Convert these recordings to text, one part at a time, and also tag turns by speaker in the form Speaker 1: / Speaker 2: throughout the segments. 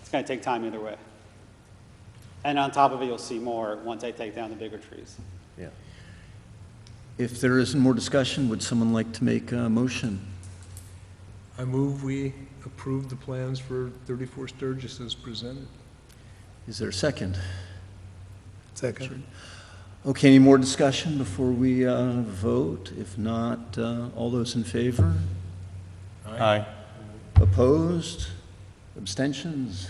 Speaker 1: It's going to take time either way. And on top of it, you'll see more once I take down the bigger trees.
Speaker 2: Yeah.
Speaker 3: If there isn't more discussion, would someone like to make a motion?
Speaker 4: I move we approve the plans for 34 Sturgis as presented.
Speaker 3: Is there a second?
Speaker 4: Second.
Speaker 3: Okay, any more discussion before we uh, vote? If not, uh, all those in favor?
Speaker 2: Aye.
Speaker 3: Opposed? Abstentions?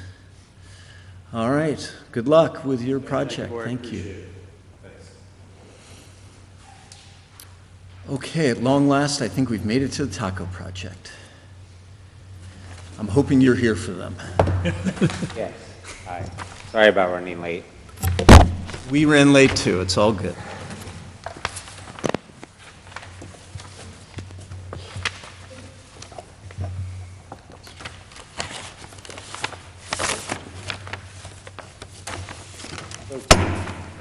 Speaker 3: All right, good luck with your project, thank you. Okay, at long last, I think we've made it to the taco project. I'm hoping you're here for them.
Speaker 5: Yes, hi. Sorry about running late.
Speaker 3: We ran late too, it's all good.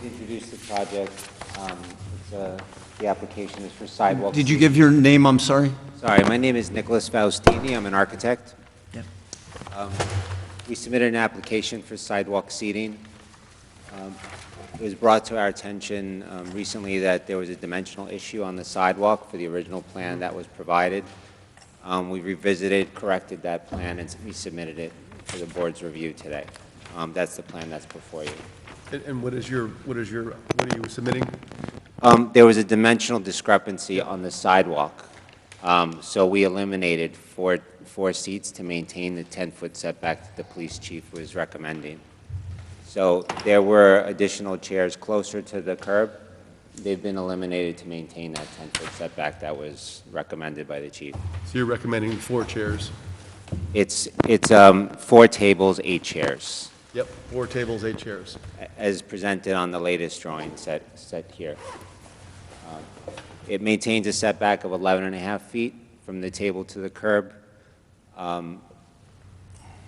Speaker 5: Introduce the project, um, it's a, the application is for sidewalks.
Speaker 3: Did you give your name, I'm sorry?
Speaker 5: Sorry, my name is Nicholas Faustini, I'm an architect.
Speaker 3: Yeah.
Speaker 5: We submitted an application for sidewalk seating. Um, It was brought to our attention um, recently that there was a dimensional issue on the sidewalk for the original plan that was provided. Um, We revisited, corrected that plan, and we submitted it for the board's review today. Um, That's the plan that's before you.
Speaker 2: And, and what is your, what is your, what are you submitting?
Speaker 5: Um, There was a dimensional discrepancy on the sidewalk, Um, so we eliminated four, four seats to maintain the 10-foot setback that the police chief was recommending. So there were additional chairs closer to the curb. They've been eliminated to maintain that 10-foot setback that was recommended by the chief.
Speaker 2: So you're recommending four chairs?
Speaker 5: It's, it's um, four tables, eight chairs,
Speaker 2: Yep, four tables, eight chairs.
Speaker 5: a- as presented on the latest drawing set, set here. Uh, It maintains a setback of 11 and a half feet from the table to the curb. Um,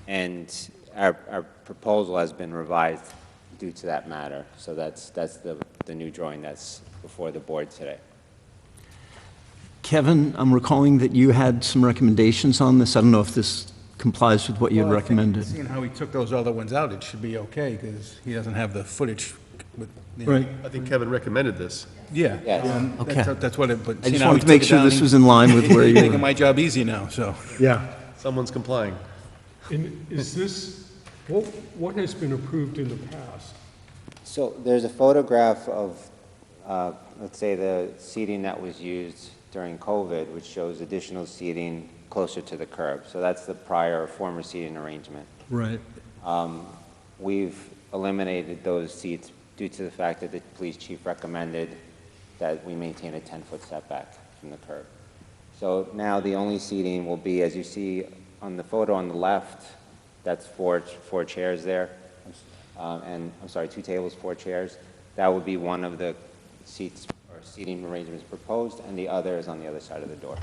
Speaker 5: And our, our proposal has been revised due to that matter. So that's, that's the, the new drawing that's before the board today.
Speaker 3: Kevin, I'm recalling that you had some recommendations on this. I don't know if this complies with what you had
Speaker 6: Well, I think
Speaker 3: recommended.
Speaker 6: Seeing how he took those other ones out, it should be okay, because he doesn't have the footage with, you know.
Speaker 3: Right.
Speaker 2: I think Kevin recommended this.
Speaker 6: Yeah.
Speaker 5: Yes.
Speaker 6: um,
Speaker 3: Okay.
Speaker 6: that's- That's what it, but.
Speaker 3: I
Speaker 6: seeing
Speaker 3: just
Speaker 6: how
Speaker 3: wanted to
Speaker 6: he
Speaker 3: make
Speaker 6: took it
Speaker 3: sure
Speaker 6: down,
Speaker 3: this
Speaker 6: he-
Speaker 3: was in line with where
Speaker 6: He's
Speaker 3: you
Speaker 6: making
Speaker 3: were.
Speaker 6: my job easy now, so.
Speaker 2: Yeah. Someone's complying.
Speaker 7: And is this, what, what has been approved in the past?
Speaker 5: So there's a photograph of, uh, let's say, the seating that was used during COVID, which shows additional seating closer to the curb. So that's the prior, former seating arrangement.
Speaker 3: Right.
Speaker 5: Um, We've eliminated those seats due to the fact that the police chief recommended that we maintain a 10-foot setback from the curb. So now the only seating will be, as you see on the photo on the left, that's four, four chairs there, um, and, I'm sorry, two tables, four chairs. That would be one of the seats or seating arrangements proposed, and the other is on the other side of the door.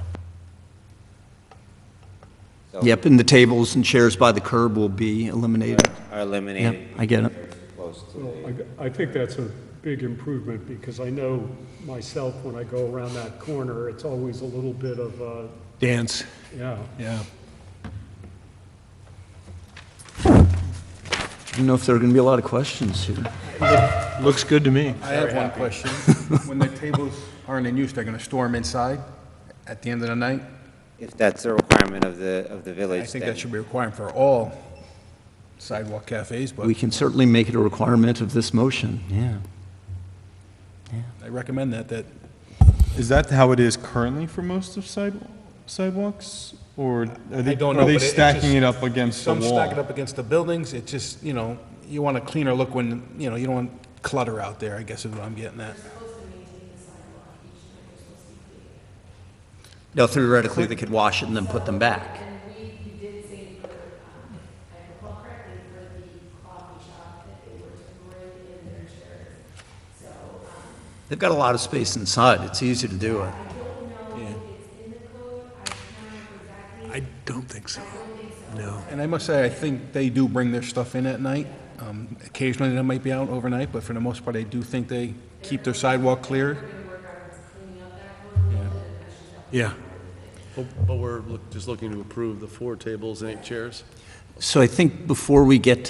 Speaker 5: So
Speaker 3: Yep, and the tables and chairs by the curb will be eliminated.
Speaker 5: Are eliminated.
Speaker 3: Yep, I get it.
Speaker 5: Close to the-
Speaker 7: Well, I, I think that's a big improvement, because I know myself, when I go around that corner, it's always a little bit of a,
Speaker 6: Dance,
Speaker 7: yeah.
Speaker 6: yeah.
Speaker 3: I don't know if there are going to be a lot of questions here.
Speaker 6: Looks good to me. I have one question. When the tables aren't in use, they're gonna store them inside at the end of the night?
Speaker 5: If that's a requirement of the, of the
Speaker 6: I
Speaker 5: village,
Speaker 6: think that
Speaker 5: then,
Speaker 6: should be required for all sidewalk cafes, but
Speaker 3: We can certainly make it a requirement of this motion, yeah.
Speaker 6: I recommend that, that
Speaker 8: Is that how it is currently for most of sidewalk, sidewalks? Or are
Speaker 6: I
Speaker 8: they,
Speaker 6: don't
Speaker 8: are
Speaker 6: know,
Speaker 8: they
Speaker 6: but it- it
Speaker 8: stacking
Speaker 6: just-
Speaker 8: it up against the
Speaker 6: Some
Speaker 8: wall?
Speaker 6: stack it up against the buildings, it just, you know, you want a cleaner look when, you know, you don't want clutter out there, I guess is what I'm getting at.
Speaker 3: No, theoretically, they could wash it and then put them back.
Speaker 9: And we, you did say for, um, I recall correctly, for the coffee shop, that they were to bring in their chairs. So, um,
Speaker 3: They've got a lot of space inside, it's easy to do it.
Speaker 9: I don't know if it's in the code, I can't remember exactly.
Speaker 4: I don't think so. No.
Speaker 6: And I must say, I think they do bring their stuff in at night. Um, Occasionally, they might be out overnight, but for the most part, I do think they keep their sidewalk clear.
Speaker 4: Yeah.
Speaker 2: But but we're look- just looking to approve the four tables and eight chairs?
Speaker 3: So I think before we get to